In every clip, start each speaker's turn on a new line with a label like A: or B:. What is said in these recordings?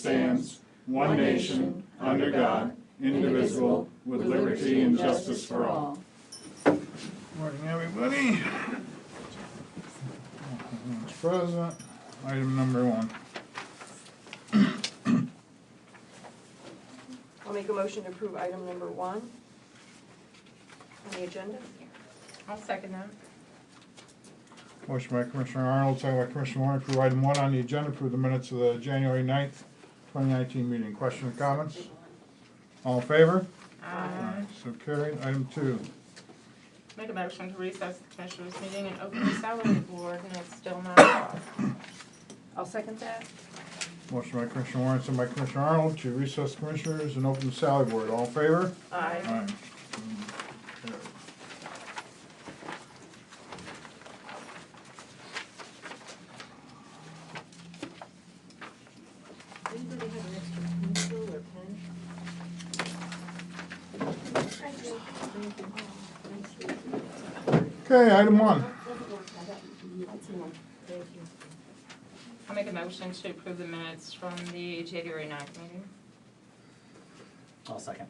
A: stands, one nation, under God, indivisible, with liberty and justice for all. Morning, everybody. Everyone's present. Item number one.
B: I'll make a motion to approve item number one on the agenda.
C: I'll second that.
A: Motion by Commissioner Arnold, second by Commissioner Warren, approve item one on the agenda, approve the minutes of the January 9th, twenty nineteen meeting. Questions, comments? All in favor?
C: Aye.
A: So carried. Item two.
C: Make a motion to recess the commissioners' meeting and open the salary board, and it's still not off.
B: I'll second that.
A: Motion by Commissioner Warren, second by Commissioner Arnold, to recess commissioners and open the salary board. All in favor?
B: Aye.
A: Aye.
B: Anybody have an extra pencil or pen?
A: Okay, item one.
B: Thank you.
C: I'll make a motion to approve the minutes from the January ninth meeting.
D: I'll second.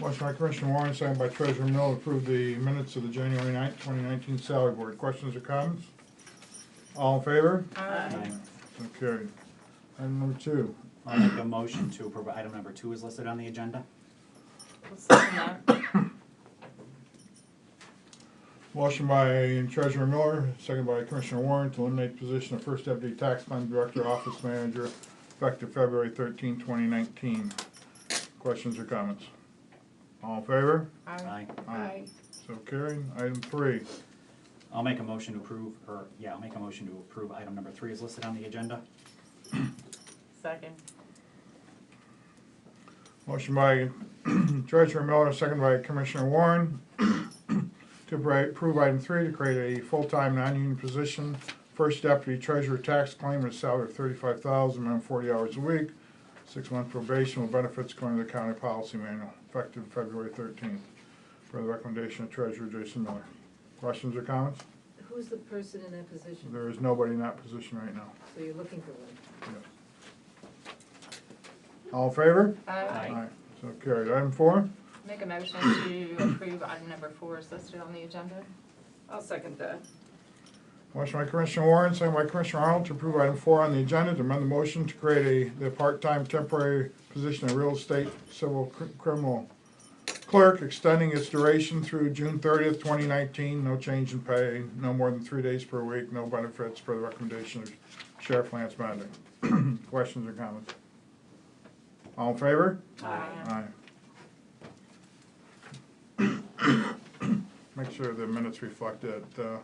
A: Motion by Commissioner Warren, second by Treasurer Mill, to approve the minutes of the January 9th, 2019 salary board. Questions or comments? All in favor?
C: Aye.
A: So carried. Item number two.
D: I'll make a motion to approve, item number two is listed on the agenda.
C: I'll second that.
A: Motion by Treasurer Miller, second by Commissioner Warren, to eliminate position of First Deputy Tax Fund Director, Office Manager, effective February 13, 2019. Questions or comments? All in favor?
C: Aye.
D: Aye.
A: Aye. So carried. Item three.
D: I'll make a motion to approve, or, yeah, I'll make a motion to approve item number three is listed on the agenda.
C: Second.
A: Motion by Treasurer Miller, second by Commissioner Warren, to appro- approve item three, to create a full-time, non-union position, first deputy treasurer tax claim at a salary of thirty-five thousand, minimum forty hours a week, six-month probation with benefits according to the county policy manual, effective February thirteenth, per the recommendation of Treasurer Jason Miller. Questions or comments?
E: Who's the person in that position?
A: There is nobody in that position right now.
E: So you're looking for one?
A: All in favor?
C: Aye.
A: So carried. Item four?
C: Make a motion to approve item number four is listed on the agenda.
B: I'll second that.
A: Motion by Commissioner Warren, second by Commissioner Arnold to approve item four on the agenda, to amend the motion to create a, the part-time temporary position of real estate civil cr- criminal clerk, extending its duration through June thirtieth, twenty nineteen, no change in pay, no more than three days per week, no benefits per the recommendation of Sheriff Lance Bender. Questions or comments? All in favor?
C: Aye.
A: Aye. Make sure the minutes reflect that uh,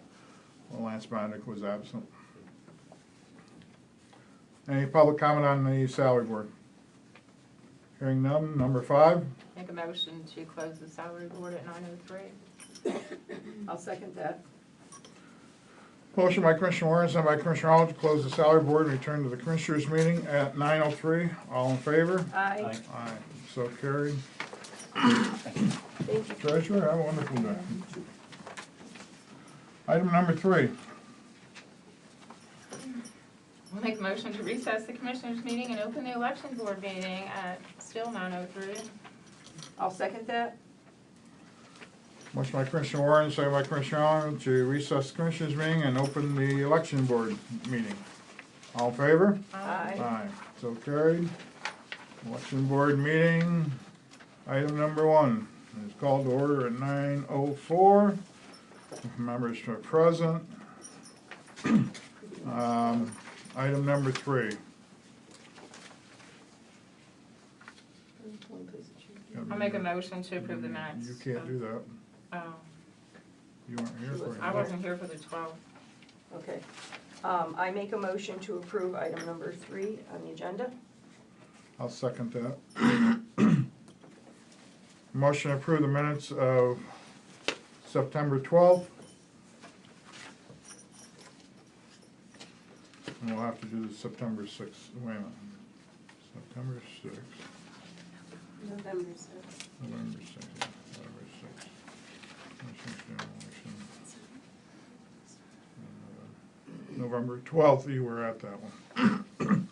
A: Lance Bondic was absent. Any public comment on the salary board? Hearing none, number five,
C: Make a motion to close the salary board at nine oh three.
B: I'll second that.
A: motion by Commissioner Warren, sent by Commissioner Arnold to close the salary board and return to the commissioners' meeting at nine oh three. All in favor?
B: Aye.
A: Aye, so carried.
B: Thank you.
A: Treasurer, have a wonderful day. Item number three.
C: I'll make a motion to recess the commissioners' meeting and open the election board meeting at still nine oh three.
B: I'll second that.
A: Motion by Commissioner Warren, second by Commissioner Arnold, to recess the Commissioners' meeting and open the election board meeting. All in favor?
B: Aye.
A: So carried. Election board meeting, item number one, is called to order at nine oh four. Members are present. Um, Item number three.
C: I'll make a motion to approve the minutes.
A: You can't do that.
C: Oh,
A: You weren't here for it.
C: I wasn't here for the twelve.
B: Okay. Um, I make a motion to approve item number three on the agenda.
A: I'll second that. Motion to approve the minutes of September 12th. And we'll have to do the September 6th, wait a minute. September 6th,
B: November sixth.
A: November 6th, November 6th. Commissioners' General Election. And, uh, November 12th, you were at that one.